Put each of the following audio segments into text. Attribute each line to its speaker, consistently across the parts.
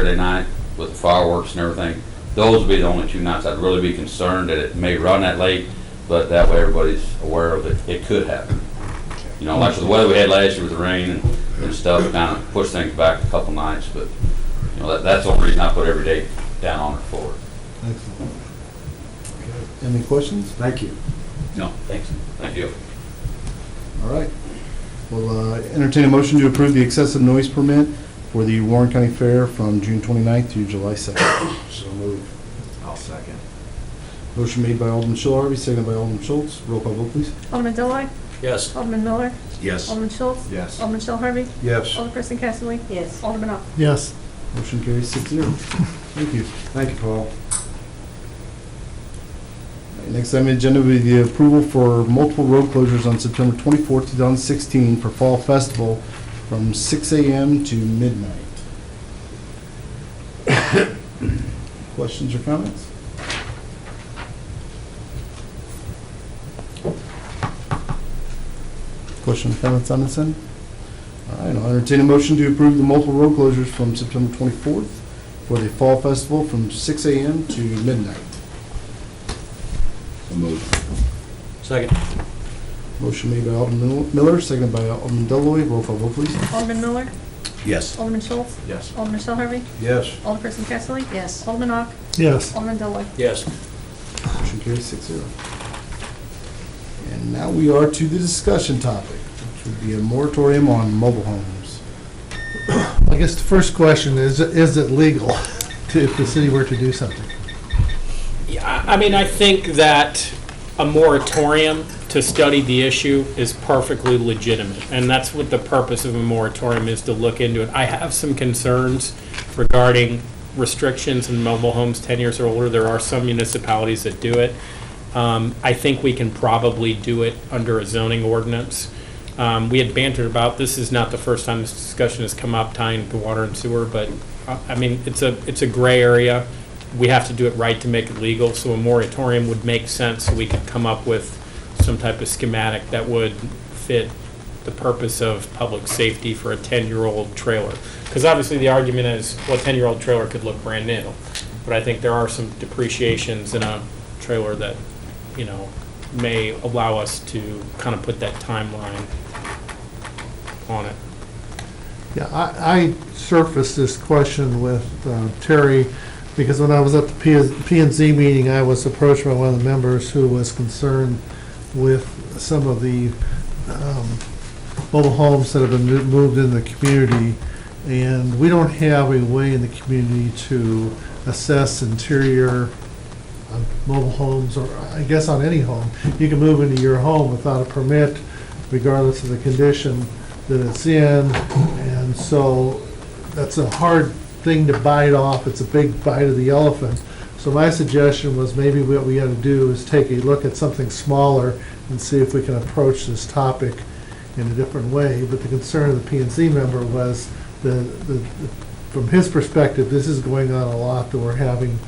Speaker 1: Saturday night with fireworks and everything. Those would be the only two nights I'd really be concerned that it may run that late, but that way everybody's aware of it. It could happen. You know, like with the weather we had last year with the rain and, and stuff, kind of pushed things back a couple nights, but, you know, that, that's the only reason I put every date down on it for it.
Speaker 2: Excellent. Any questions?
Speaker 3: Thank you.
Speaker 1: No, thanks. Thank you.
Speaker 2: All right. Well, uh, entertain a motion to approve the excessive noise permit for the Warren County Fair from June 29th to July 2nd.
Speaker 3: So moved. I'll second.
Speaker 2: Motion made by Alderman Shell Harvey, seconded by Alderman Schultz. Roll call vote, please.
Speaker 4: Alderman Deloy,
Speaker 3: Yes.
Speaker 4: Alderman Miller,
Speaker 3: Yes.
Speaker 4: Alderman Schultz,
Speaker 3: Yes.
Speaker 4: Alderman Shell Harvey,
Speaker 3: Yes.
Speaker 4: Alderperson Casterly,
Speaker 5: Yes.
Speaker 4: Alderman Ock.
Speaker 6: Yes.
Speaker 2: Motion carries six zero. Thank you.
Speaker 3: Thank you, Paul.
Speaker 2: Next item on the agenda will be the approval for multiple road closures on September 24th, 2016 for Fall Festival from 6 a.m. to midnight. Questions or comments? Questions, comments on this end? All right, I'll entertain a motion to approve the multiple road closures from September 24th for the Fall Festival from 6 a.m. to midnight.
Speaker 7: Second.
Speaker 2: Motion made by Alderman Miller, seconded by Alderman Deloy. Roll call vote, please.
Speaker 4: Alderman Miller,
Speaker 3: Yes.
Speaker 4: Alderman Schultz,
Speaker 3: Yes.
Speaker 4: Alderman Shell Harvey,
Speaker 3: Yes.
Speaker 4: Alderperson Casterly,
Speaker 5: Yes.
Speaker 4: Alderman Ock,
Speaker 6: Yes.
Speaker 4: Alderman Deloy.
Speaker 7: Yes.
Speaker 2: Motion carries six zero. And now we are to the discussion topic, which would be a moratorium on mobile homes.
Speaker 6: I guess the first question is, is it legal to, if the city were to do something?
Speaker 8: Yeah, I I mean, I think that a moratorium to study the issue is perfectly legitimate, and that's what the purpose of a moratorium is, to look into it. I have some concerns regarding restrictions in mobile homes 10 years or older. There are some municipalities that do it. Um, I think we can probably do it under a zoning ordinance. Um, We had bantered about, this is not the first time this discussion has come up tying to water and sewer, but, uh, I mean, it's a, it's a gray area. We have to do it right to make it legal, so a moratorium would make sense, so we could come up with some type of schematic that would fit the purpose of public safety for a 10-year-old trailer. Because obviously, the argument is, well, a 10-year-old trailer could look brand new, but I think there are some depreciations in a trailer that, you know, may allow us to kind of put that timeline on it.
Speaker 6: Yeah, I, I surfaced this question with uh, Terry, because when I was at the P and- P and Z meeting, I was approached by one of the members who was concerned with some of the um, mobile homes that have been mo- moved in the community, and we don't have a way in the community to assess interior on mobile homes, or I guess on any home. You can move into your home without a permit, regardless of the condition that it's in, and so that's a hard thing to bite off, it's a big bite of the elephant. So my suggestion was maybe what we ought to do is take a look at something smaller and see if we can approach this topic in a different way, but the concern of the P and Z member was the, the, from his perspective, this is going on a lot that we're having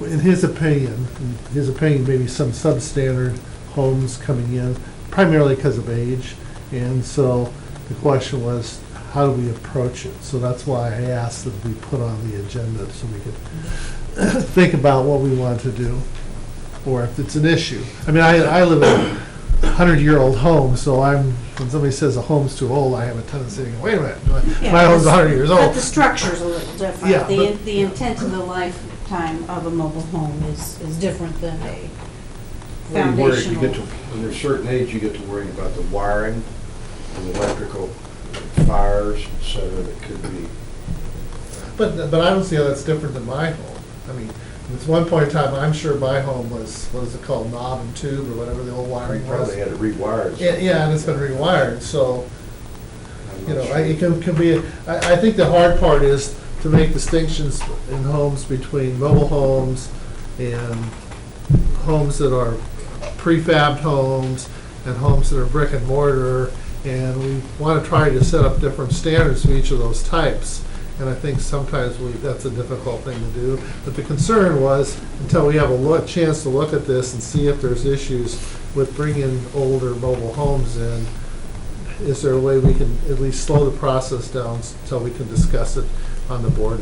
Speaker 6: in his opinion, in his opinion, maybe some substandard homes coming in, primarily because of age. And so the question was, how do we approach it? So that's why I asked that we put on the agenda so we could think about what we want to do, or if it's an issue. I mean, I, I live in a hundred-year-old home, so I'm, when somebody says a home's too old, I have a tendency to go, wait a minute, my- my home's a hundred years
Speaker 5: But
Speaker 6: old.
Speaker 5: the structure's a little
Speaker 6: Yeah,
Speaker 5: different. The,
Speaker 6: but-
Speaker 5: the intent of the lifetime of a mobile home is, is different than a
Speaker 3: When you worry, you get to,
Speaker 5: foundational.
Speaker 3: when you're a certain age, you get to worrying about the wiring, the electrical fires, et cetera, that could be.
Speaker 6: But, but I don't see how that's different than my home. I mean, at one point in time, I'm sure my home was, what is it called, knob and tube or whatever the old
Speaker 3: You
Speaker 6: wiring was.
Speaker 3: probably had it rewired.
Speaker 6: Yeah, yeah, and it's been rewired, so,
Speaker 3: I'm
Speaker 6: you
Speaker 3: not
Speaker 6: know,
Speaker 3: sure.
Speaker 6: I- it can, can be, I, I think the hard part is to make distinctions in homes between mobile homes and homes that are prefabbed homes and homes that are brick and mortar. And we want to try to set up different standards for each of those types. And I think sometimes we, that's a difficult thing to do. But the concern was, until we have a look, chance to look at this and see if there's issues with bringing older mobile homes in, is there a way we can at least slow the process down until we can discuss it on the board